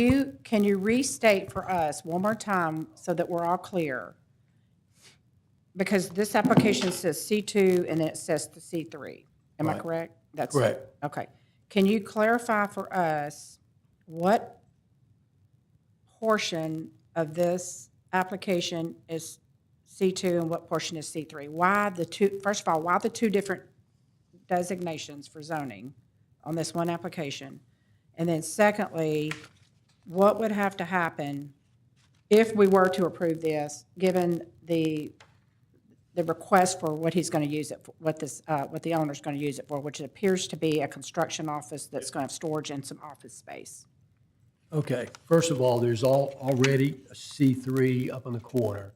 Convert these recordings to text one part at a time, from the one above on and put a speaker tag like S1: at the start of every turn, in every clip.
S1: You, can you restate for us one more time so that we're all clear? Because this application says C2 and then it says the C3. Am I
S2: Right.
S1: correct? That's
S2: Correct.
S1: Okay. Can you clarify for us what portion of this application is C2 and what portion is C3? Why the two, first of all, why the two different designations for zoning on this one application? And then secondly, what would have to happen if we were to approve this, given the, the request for what he's going to use it, for, what this, uh, what the owner's going to use it for, which appears to be a construction office that's going to have storage and some office space?
S2: Okay, first of all, there's all, already a C3 up in the corner.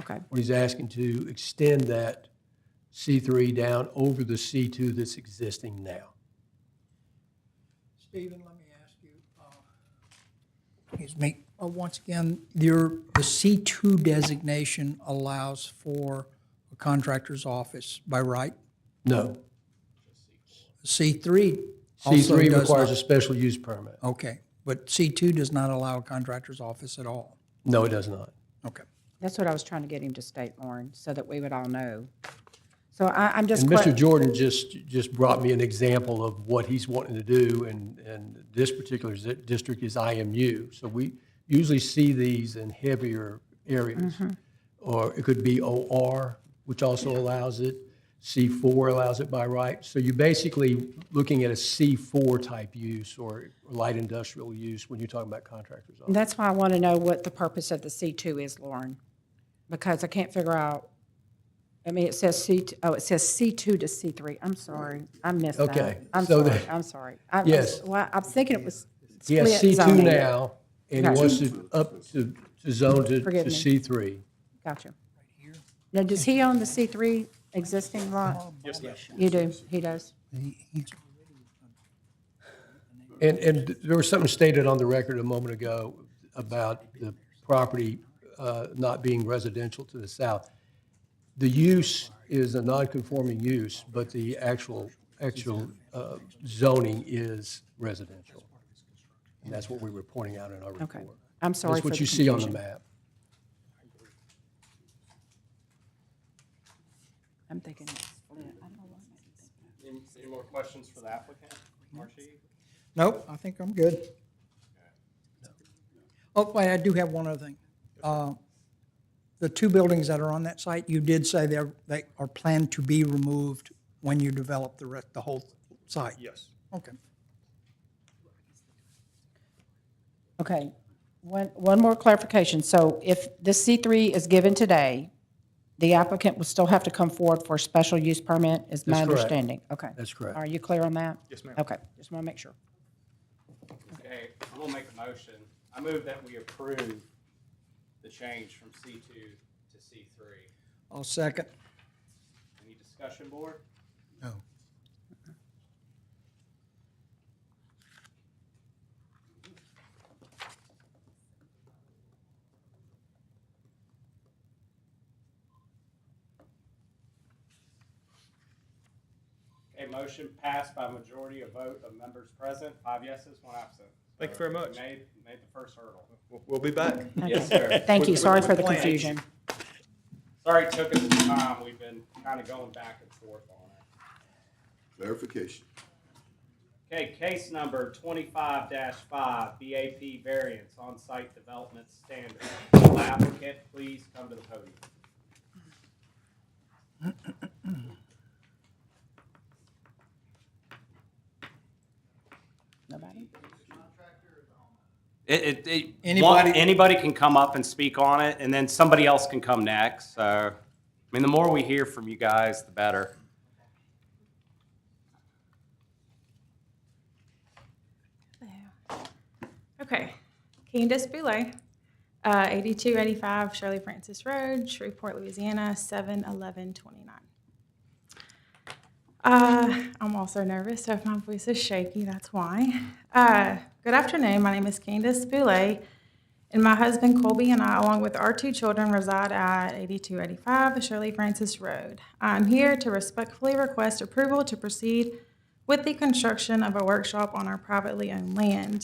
S1: Okay,
S2: What he's asking to extend that C3 down over the C2 that's existing now.
S3: Stephen, let me ask you, uh, excuse me, uh, once again, your, the C2 designation allows for a contractor's office by right.
S2: No,
S3: C3 also
S2: C3
S3: does
S2: requires
S3: not.
S2: a special use permit.
S3: Okay, but C2 does not allow a contractor's office at all.
S2: No, it does not.
S3: Okay.
S1: that's what I was trying to get him to state, Lauren, so that we would all know. So I, I'm just.
S2: And
S1: que-
S2: Mr. Jordan just, just brought me an example of what he's wanting to do, and, and this particular zi- district is IMU. So we usually see these in heavier areas.
S1: Mm-hmm.
S2: Or it could be OR, which also allows it. C4 allows it by right. So you're basically looking at a C4 type use or light industrial use when you're talking about contractors.
S1: And That's why I want to know what the purpose of the C2 is, Lauren, because I can't figure out, I mean, it says C, oh, it says C2 to C3. I'm sorry, I missed that.
S2: Okay,
S1: I'm
S2: so
S1: sorry,
S2: the-
S1: I'm sorry. I was-
S2: Yes.
S1: Well, I'm thinking it was
S2: He has
S1: split
S2: C2
S1: zoning.
S2: now, and he
S1: Gotcha.
S2: wants to up to to zone to to
S1: Forgive me.
S2: C3.
S1: Gotcha. Now, does he own the C3 existing lot? Yes, You do, he does.
S3: He- he's-
S2: And, and there was something stated on the record a moment ago about the property uh, not being residential to the south. The use is a non-conforming use, but the actual, actual uh, zoning is residential. And that's what we were pointing out in our
S1: Okay.
S2: report.
S1: I'm sorry
S2: That's
S1: for the
S2: what you see on the
S1: confusion.
S2: map.
S1: I'm thinking it's split. I don't know why.
S4: Any, any more questions for the applicant, Marcy?
S3: Nope, I think I'm good. Oh, wait, I do have one other thing. Uh, The two buildings that are on that site, you did say they're, they are planned to be removed when you develop the rest, the whole site?
S4: Yes.
S3: Okay.
S1: Okay, one, one more clarification. So if this C3 is given today, the applicant will still have to come forward for a special use permit, is my
S2: That's correct.
S1: understanding? Okay.
S2: That's correct.
S1: Are you clear on that?
S4: Yes, ma'am.
S1: Okay, just want to make sure.
S4: Okay, I'm gonna make a motion. I move that we approve the change from C two to C three.
S3: I'll second.
S4: Any discussion, board?
S3: No.
S4: Okay, motion passed by majority of vote of members present, five yeses, one absent.
S5: Thank you very much.
S4: Made, made the first hurdle.
S5: We'll- We'll be back.
S4: Yes, sir.
S1: Thank you, sorry for the
S4: Plan.
S1: confusion.
S4: Sorry it took us some time. We've been kind of going back and forth on it.
S6: Clarification.
S4: Okay, case number twenty-five five, BAP variance on-site development standard. Will applicant please come to the podium?
S1: Nobody?
S4: It, it, it,
S3: Anybody-
S4: one- anybody can come up and speak on it, and then somebody else can come next, so, I mean, the more we hear from you guys, the better.
S7: There. Okay, Candace Boulay, uh, 8285 Shirley Francis Road, Shreveport, Louisiana, 71129. Uh, I'm also nervous, so if my voice is shaky, that's why. Uh, Good afternoon, my name is Candace Boulay, and my husband Colby and I, along with our two children, reside at 8285 Shirley Francis Road. I'm here to respectfully request approval to proceed with the construction of a workshop on our privately owned land.